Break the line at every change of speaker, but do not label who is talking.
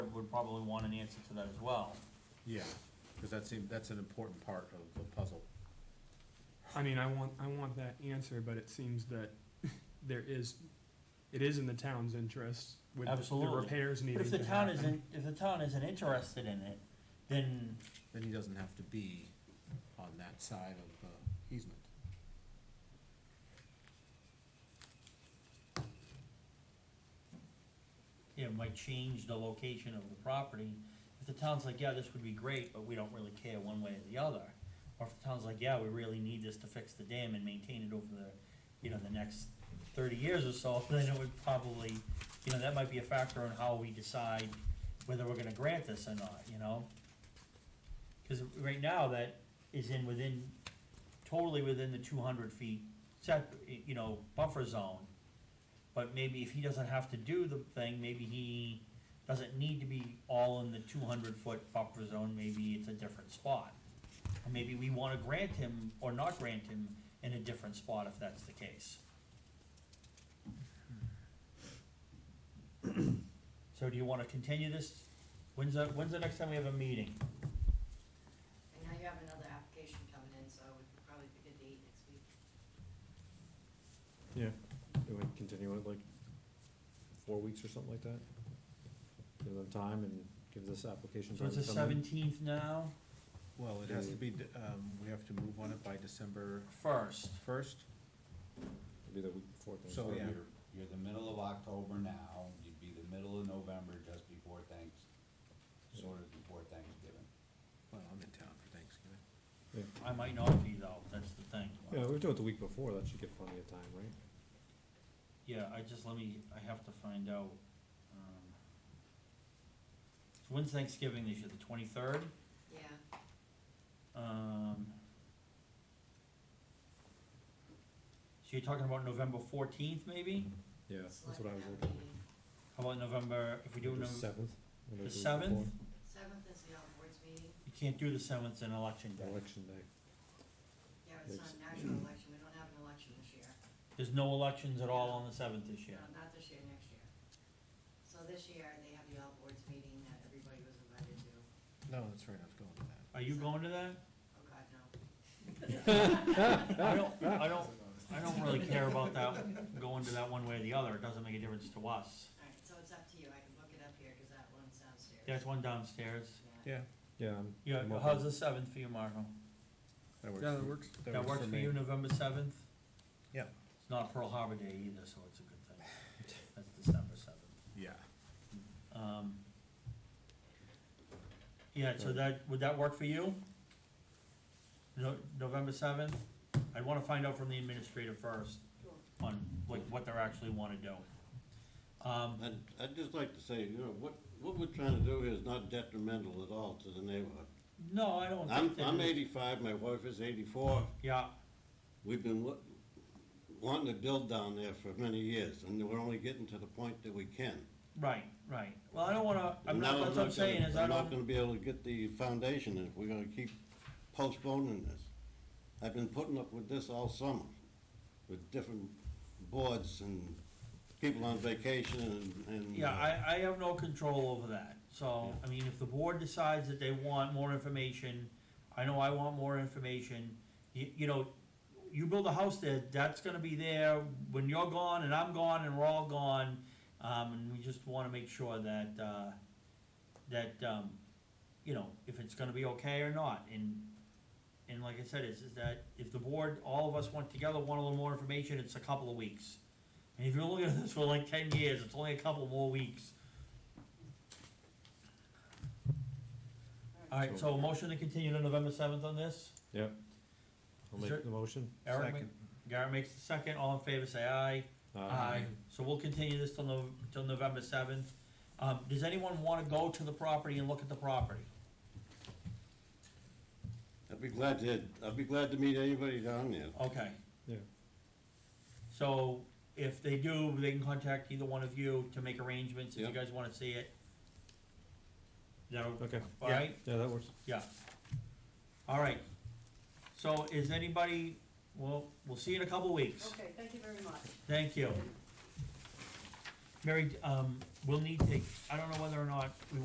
would probably want an answer to that as well.
Yeah, because that seems, that's an important part of the puzzle.
I mean, I want, I want that answer, but it seems that there is, it is in the town's interest with the- the
Absolutely.
repairs needing
But
to
if the
happen.
town isn't, if the town isn't interested in it, then
Then he doesn't have to be on that side of the easement.
it might change the location of the property. If the town's like, yeah, this would be great, but we don't really care one way or the other. Or if the town's like, yeah, we really need this to fix the dam and maintain it over the, you know, the next thirty years or so, then it would probably, you know, that might be a factor in how we decide whether we're gonna grant this or not, you know? Cause right now, that is in within, totally within the two hundred feet set, you know, buffer zone. But maybe if he doesn't have to do the thing, maybe he doesn't need to be all in the two hundred foot buffer zone, maybe it's a different spot. Or maybe we wanna grant him or not grant him in a different spot if that's the case. So do you wanna continue this? When's the, when's the next time we have a meeting?
And now you have another application coming in, so we could probably pick a date next week.
Yeah, do we continue it like four weeks or something like that? Give them time and give this application
So
time
it's the
to come in?
seventeenth now,
Well, it has to be, de- um, we have to move on it by December
first.
first,
It'd Be the week before
So,
Thanksgiving.
yeah.
You're, you're the middle of October now, you'd be the middle of November just before Thanks, sort of before Thanksgiving.
well, I'm in town for Thanksgiving.
I might not be though, that's the thing.
Yeah, we do it the week before, that should give plenty of time, right?
Yeah, I just, let me, I have to find out. um, So when's Thanksgiving this year, the twenty-third?
Yeah,
Um, so you're talking about November fourteenth, maybe?
Yeah, that's what I
selectmen
was looking
meeting.
How about November, if we do
at. The
November,
seventh?
the seventh?
Seventh is the all boards meeting.
You can't do the seventh, it's an election day.
Election day.
Yeah, it's not
Makes-
an actual election. We don't have an election this year.
There's no elections at all on the seventh this year.
No, not this year, next year. So this year, they have the all boards meeting that everybody was invited to.
No, that's right, I was going to that.
Are you going to that?
Oh, God, no.
I don't, I don't, I don't really care about that, going to that one way or the other, it doesn't make a difference to us.
All right, so it's up to you. I can book it up here because that one's downstairs.
There's one downstairs.
Yeah.
Yeah, I'm-
Yeah,
I'm open.
how's the seventh for you, Marco?
That works.
works.
That works for you, November seventh?
Yeah.
It's not Pearl Harbor Day either, so it's a good thing. That's December seventh.
Yeah,
Um, yeah, so that, would that work for you? No, November seventh? I'd wanna find out from the administrator first
Sure.
on like what they're actually wanna do. Um,
I'd, I'd just like to say, you know, what, what we're trying to do here is not detrimental at all to the neighborhood.
no, I don't
I'm,
think that.
I'm
is-
eighty-five, my wife is eighty-four,
Yeah,
we've been wa- wanting to build down there for many years, and we're only getting to the point that we can.
right, right. Well, I don't wanna, I'm
And
not,
now
that's what I'm
gonna-
saying is I
I'm not
don't,
gonna be able to get the foundation if we're gonna keep postponing this. I've been putting up with this all summer, with different boards and people on vacation and, and. uh,
yeah, I, I have no control over that. So, I mean, if the board decides that they want more information, I know I want more information. You, you know, you build a house there, that's gonna be there when you're gone and I'm gone and we're all gone. Um, and we just wanna make sure that, uh, that, um, you know, if it's gonna be okay or not. And, and like I said, is, is that if the board, all of us went together, want a little more information, it's a couple of weeks. And if you're looking at this for like ten years, it's only a couple more weeks. Alright, so a motion to continue to November seventh on this?
Yep. I'll
Is there-
make the motion.
Eric, ma-
second,
Garrett makes the second, all in favor, say aye.
Uh,
So we'll continue this till Nov- till November seventh. Um, does anyone wanna go to the property and look at the property?
I'd be glad to, I'd be glad to meet anybody down there.
Okay.
Yeah.
So if they do, they can contact either one of you to make arrangements, if you
Yep.
guys wanna see it. That'll,
Okay,
alright?
yeah, that works.
Yeah. All right. So is anybody, well, we'll see you in a couple weeks.
Okay, thank you very much.
Thank you. Mary, um, we'll need to, I don't know whether or not we